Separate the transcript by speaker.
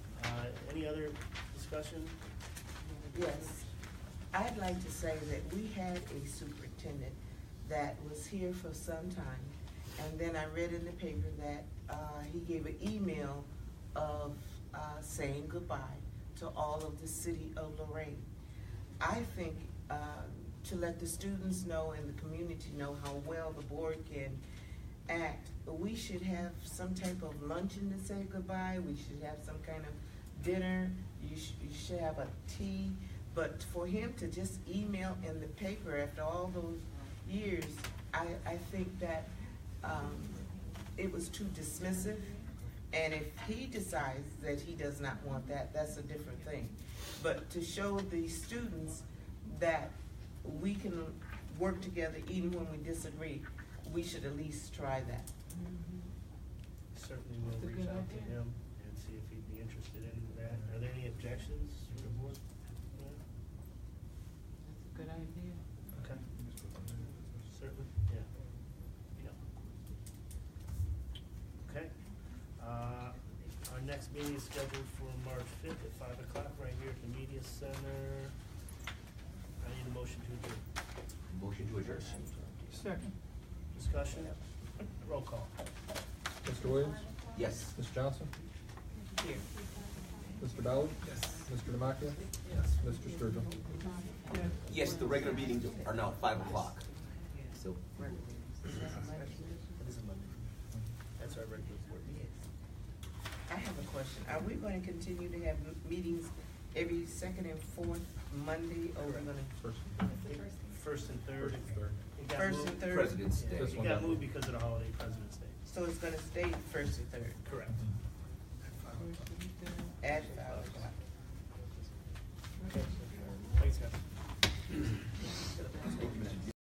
Speaker 1: Uh, other discussion?
Speaker 2: Yes. I'd like to say that we had a superintendent that was here for some time. And then I read in the paper that, uh, he gave an email of, uh, saying goodbye to all of the city of Lorraine. I think, uh, to let the students know and the community know how well the board can act, we should have some type of luncheon to say goodbye, we should have some kind of dinner, you should, you should have a tea. But for him to just email in the paper after all those years, I, I think that, um, it was too dismissive. And if he decides that he does not want that, that's a different thing. But to show the students that we can work together even when we disagree, we should at least try that.
Speaker 3: Mm-hmm.
Speaker 1: Certainly we'll reach out to him and see if he'd be interested in that. Are there any objections from the board? No?
Speaker 3: That's a good idea.
Speaker 1: Okay, certainly, yeah. Yeah. Okay. Uh, Our next meeting is scheduled for March fifth at five o'clock, right here at the media center. I need a motion to adjourn.
Speaker 4: Motion to adjourn.
Speaker 3: Second.
Speaker 1: Discussion? Roll call.
Speaker 5: Mr. Williams?
Speaker 4: Yes.
Speaker 5: Ms. Johnson?
Speaker 2: Here.
Speaker 5: Mr. Ballard? Yes. Mr. Demakia? Yes. Mr. Sturgill?
Speaker 4: Yes, the regular meetings are now five o'clock. So,
Speaker 1: That is a Monday. That's our regular board meeting.
Speaker 2: I have a question. Are we going to continue to have m- meetings every second and fourth Monday or we're gonna?
Speaker 5: First.
Speaker 1: First and third. It got
Speaker 2: First
Speaker 1: moved-
Speaker 2: and third.
Speaker 4: President's
Speaker 1: Yeah,
Speaker 4: Day.
Speaker 5: This
Speaker 1: It
Speaker 5: one
Speaker 1: got
Speaker 5: got
Speaker 1: moved
Speaker 5: moved.
Speaker 1: because of the holiday, President's Day.
Speaker 2: So it's gonna stay first and third?
Speaker 1: Correct.
Speaker 4: Mm-hmm.